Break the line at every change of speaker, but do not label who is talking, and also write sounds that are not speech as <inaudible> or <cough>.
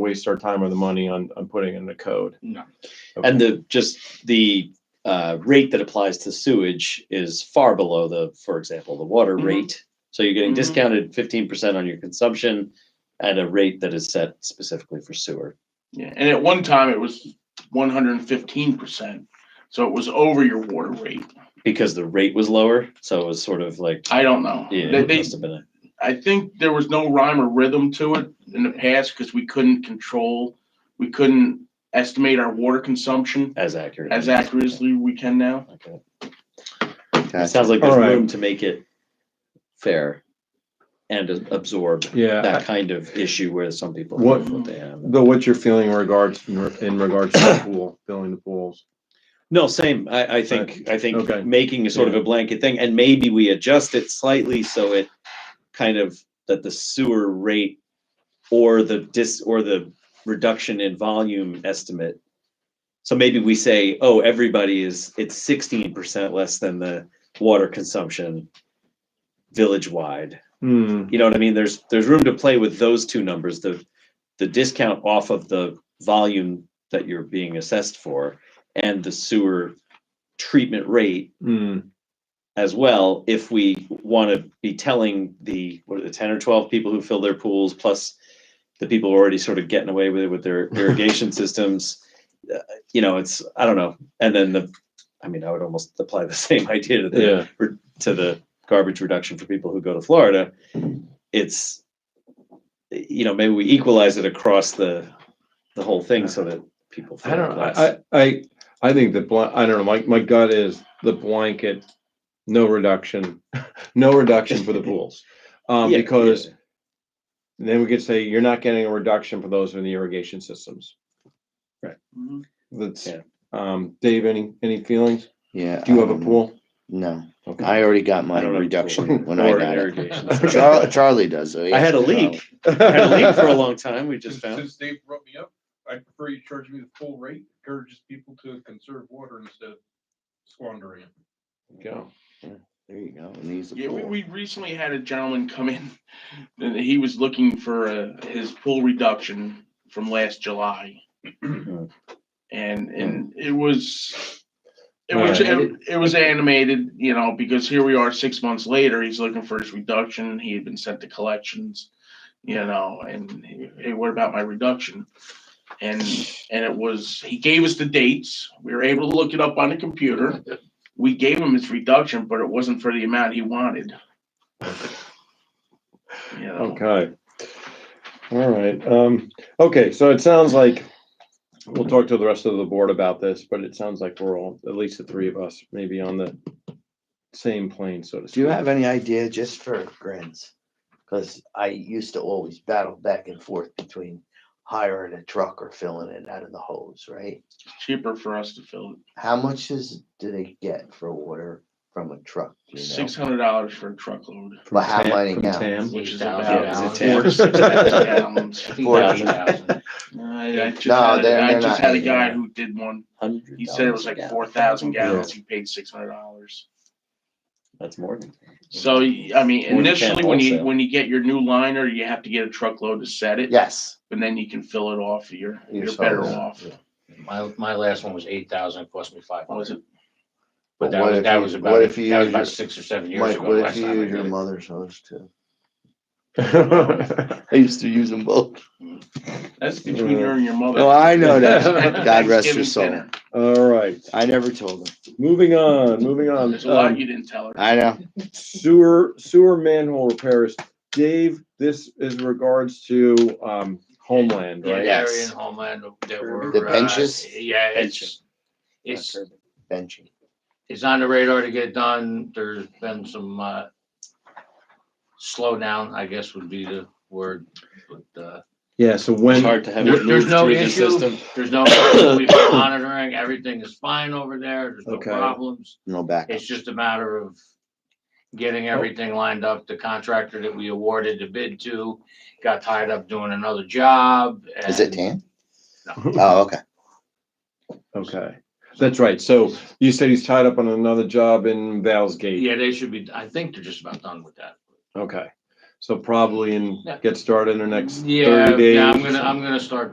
waste our time or the money on, on putting in the code.
No.
Okay.
And the, just the uh, rate that applies to sewage is far below the, for example, the water
Mhm.
rate. So you're getting
Mhm.
discounted fifteen percent on your consumption at a rate that is set specifically for sewer.
Yeah, and at one time it was one hundred and fifteen percent, so it was over your water rate.
Because the rate was lower, so it was sort of like,
I don't know.
yeah,
They-
it
they-
must have been a-
I think there was no rhyme or rhythm to it in the past because we couldn't control, we couldn't estimate our water consumption
as accurate.
as accurately we can now.
Okay.
Okay.
It sounds like
All
there's
right.
room to make it fair and a- absorb
Yeah,
that kind of issue where some people.
What-
live they have.
Though what's your feeling in regards, in regards to the pool, filling the pools?
No, same. I, I think, I
Okay.
think making a sort of a blanket thing and maybe we adjust it slightly so it kind of, that the sewer rate or the dis, or the reduction in volume estimate. So maybe we say, oh, everybody is, it's sixteen percent less than the water consumption village-wide.
Hmm,
You know what I mean? There's, there's room to play with those two numbers, the, the discount off of the volume that you're being assessed for and the sewer treatment rate
hmm,
as well, if we want to be telling the, what are the ten or twelve people who fill their pools, plus the people who are already sort of getting away with it with
<laughs>
their irrigation systems, uh, you know, it's, I don't know. And then the, I mean, I would almost apply the <laughs> same idea to the
yeah,
to the garbage reduction for people who go to Florida, it's you know maybe we equalize it across the the whole thing so that people.
I don't,
feel less.
I, I, I- I think the, blan- I don't know, my, my gut is the blanket, no reduction, <laughs> no reduction
<laughs>
for the pools. Um,
Yeah,
because
yeah.
then we could say you're not getting a reduction for those in the irrigation systems.
Mm-hmm.
Mhm.
That's,
Yeah.
um, Dave, any, any feelings?
Yeah.
Do you have a
um,
pool?
No,
Okay. <laughs>
I already got my
I don't have a
reduction
pool
when I
Or an
got it.
irrigation system.
Char- Charlie does. So he
I had a
asked me about
leak.
it.
I had a leak for a long time. We
<laughs>
just
Since-
found.
Since Dave brought me up, I prefer you charge me the full rate, encourages people to conserve water instead of squandering it.
Go.
There you go. And he's a
Yeah, we,
fool.
we recently had a gentleman come in, and he was looking for uh, his pool reduction from last July. And, and it was, it was, it it was animated, you know, because here we are six months later, he's looking for his reduction, he had been sent to collections, you know, and he- hey, what about my reduction? And, and it was, he gave us the dates, we were able to look it up on the computer we gave him his reduction, but it wasn't for the amount he
<laughs>
wanted. You know,
Okay. All right, um, okay, so it sounds like we'll talk to the rest of the board about this, but it sounds like we're all, at least the three of us, maybe on the same plane, so to speak.
Do you have any idea just for grins? Because I used to always battle back and forth between hiring a truck or filling it out of the hose, right?
cheaper for us to fill
How much is, do they get for water from a truck? do
it.
you know?
Six hundred dollars for a truckload,
But how
Tam-
many
from
gallons?
Tam?
which is
8,000
about
gallons.
four to six thousand gallons.
<laughs> Forty.
I I just
No,
had,
they're-
a- I
they're
just
not
had a
eight
guy
gallons.
who did one.
$100
He said it was
a
like
gallon.
four thousand gallons. He paid six hundred dollars.
That's more than.
So, I mean,
Forty
initially,
can
when you,
also.
when you get your new liner, you have to get a truckload to set it.
Yes.
And then you can fill it off. You're,
You're
you're better
solid.
off.
My, my last one was eight thousand, it cost me five
What was
hundred,
it?
But
but that
what
was,
if
that
you-
was
what
about,
if you
that was
use your-
about six or seven years
Mike,
ago.
what
last
if you
time I
use your
did it.
mother's hose too? I used to use them both.
That's between you and your mother.
Well, Mm. I
<laughs>
know that.
At
<laughs> God rest
Thanksgiving
her soul.
dinner.
<laughs> All right,
I never told her.
moving on, moving on.
There's a lot
Um,
you didn't tell her.
I know.
sewer, sewer manhole repairs. Dave, this is regards to, um, homeland,
Yeah,
right?
Larry and Homeland, there were.
The
uh,
benches?
Yeah, it's,
Benches.
it's,
Benching.
it's on the radar to get done, there's been some, uh, slowdown, I guess would be the word, but, uh,
Yeah, so
It's
when,
hard to have
There-
it
there's
move
no
through the
issue.
system.
there's no, we've
<coughs>
been monitoring, everything is fine over there, there's no
Okay.
problems.
No back.
It's just a matter of getting everything lined up. The contractor that we awarded the bid to got tied up doing another job.
Is it tan?
and- No.
Oh, okay.
okay, that's right. So you said he's tied up on another job in Val's Gate.
Yeah, they should be, I think they're just about done with that.
Okay, so probably in,
Yeah.
get started in the next
Yeah,
thirty days.
yeah, I'm
or
gonna,
something.
I'm gonna start